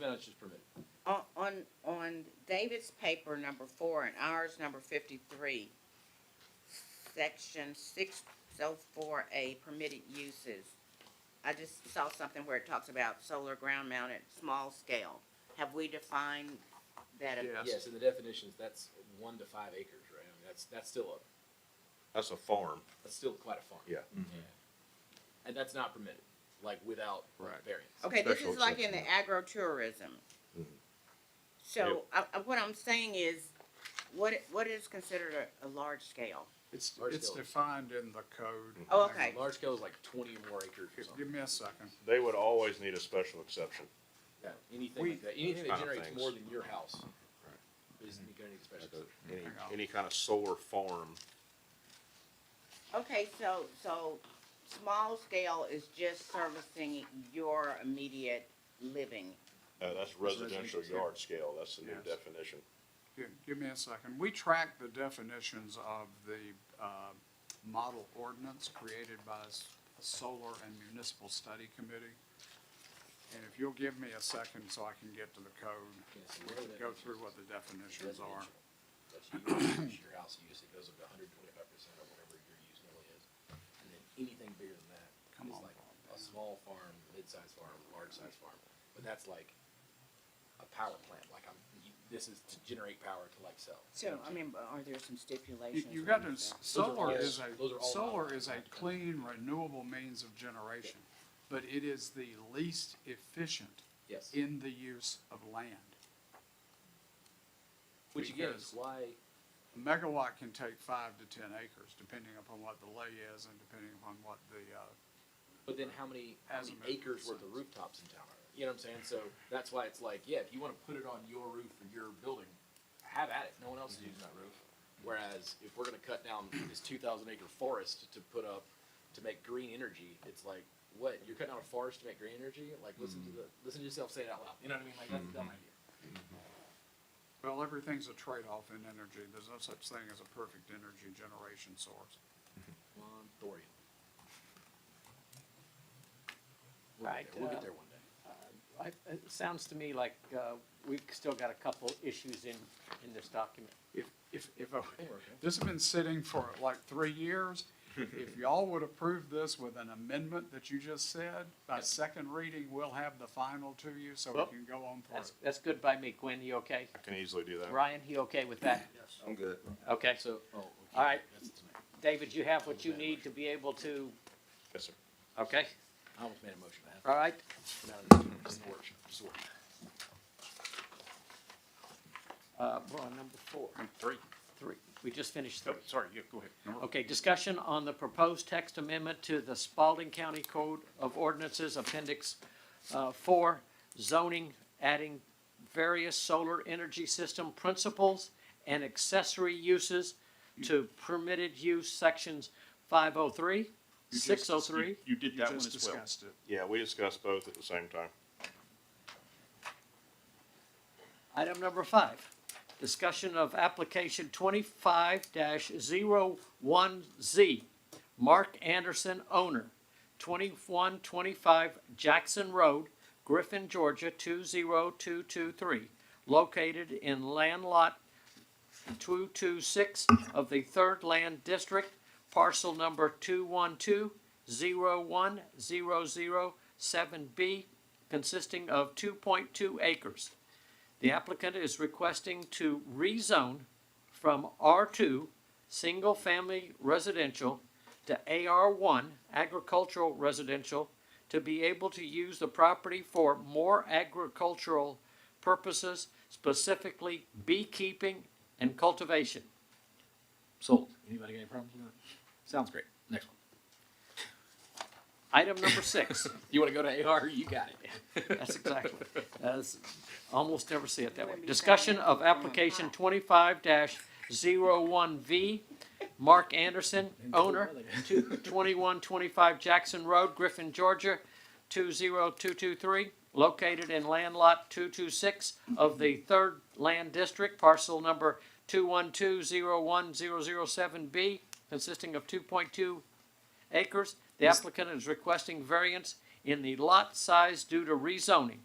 minutes is permitted. On, on, on David's paper number four and ours number fifty-three, section six oh four A permitted uses. I just saw something where it talks about solar ground mounted, small scale. Have we defined that? a- Yes. Yes, in the definitions, that's one to five acres, right? I mean, that's, that's still a, That's a farm. that's still quite a farm. Yeah. And that's not permitted, like without Right. variance. Okay, this Special is like in the agro-tourism. Mhm. So, I, I, what I'm saying is, what, what is considered a, a large scale? It's, Large it's scale. defined in the code. Oh, okay. Large scale is like twenty or more acres or Give- something. Give me a second. They would always need a special exception. Yeah, anything We- Ah, like that, anything that Kind of generates things. more than your house is gonna need a special exception. Any, Hang on. any kind of solar farm. Okay, so, so small scale is just servicing your immediate living. Uh, that's residential residential yard scale. That's the new Yes. definition. Give, give me a second. We track the definitions of the, uh, model ordinance created by s- a solar and municipal study committee. And if you'll give me a second so I can get to the code, Yes, we can go through what the definitions residential. are. That's your, that's your house use, it goes up to hundred and twenty-five percent of whatever your use normally is. And then anything bigger than that Come is on, like a small farm, mid-sized farm, large-sized farm. But that's like a power plant, like I'm, you- this is to generate power to like sell. So, I mean, but are there some You, stipulations? you or got to, anything? solar all- is those a, are all solar models. is a clean renewable means of generation, but it is the least efficient Yes, in the use of land. which again because- is why, A megawatt can take five to ten acres, depending upon what the lay is and depending upon what the, uh, but then how many, how As many a matter of acres worth of fact. rooftops in town are there? You know what I'm saying? So that's why it's like, yeah, if you wanna put it on your roof or your building, have at it, no one else is using that roof. Whereas if we're gonna cut down this two thousand acre forest to put up, to make green energy, it's like, what, you're cutting down a forest to make green energy? Like, listen to the, listen to yourself say it out loud, you know what I mean? Like, that's a dumb idea. well, everything's a trade-off in energy. There's no such thing as a perfect energy generation source. One thorium. We'll get Right, there, we'll uh, get there one day. I- It sounds to me like uh, we've still got a couple issues in, in this document. If, if, if, I- Don't worry, okay? this has been sitting for like three years, if y'all would approve this with an amendment that you just said, by second reading, we'll have the final to you, so Well, we can go on for it. That's, that's good by me. Gwen, you okay? I can easily do that. Ryan, you okay with that? I'm good. Okay. So, oh, okay. All right. That's tonight. David, you have what you need to be able to, Yes, sir. okay, I almost made a motion, I had all right. No, it's just an orchard, just an orchard. Uh, We're on number four, Three. Oh, three. We just finished three. sorry, yeah, go ahead. Okay, discussion on the proposed text amendment to the Spalding County Code of Ordinances, Appendix uh, 4, zoning, adding various solar energy system principles and accessory uses to permitted use sections 503, You just- 603. You did oh You that one just as well. discussed it. Yeah, we discussed both at the same time. Item number 5, discussion of application 25-01Z, Mark Anderson, owner, 2125 Jackson Road, Griffin, Georgia, 20223, located in Land Lot 226 of the Third Land District, parcel number 212-01007B, consisting of 2.2 acres. The applicant is requesting to rezone from R2, single family residential, to AR1, agricultural residential, to be able to use the property for more agricultural purposes, specifically beekeeping and cultivation. Sold. Anybody got any problems with that? Sounds great. Next one. Item number six, You want to go to AR? You got it. that's exactly, that's, almost never see it that way. Let me Discussion try it. of application twenty-five dash V, Mark Anderson, owner, two- 2125 Jackson Road, Griffin, Georgia, 20223, located in land lot 226 of the 3rd Land District, parcel number 2120107B, consisting of 2.2 acres. The applicant is requesting variance in the lot size due to rezoning.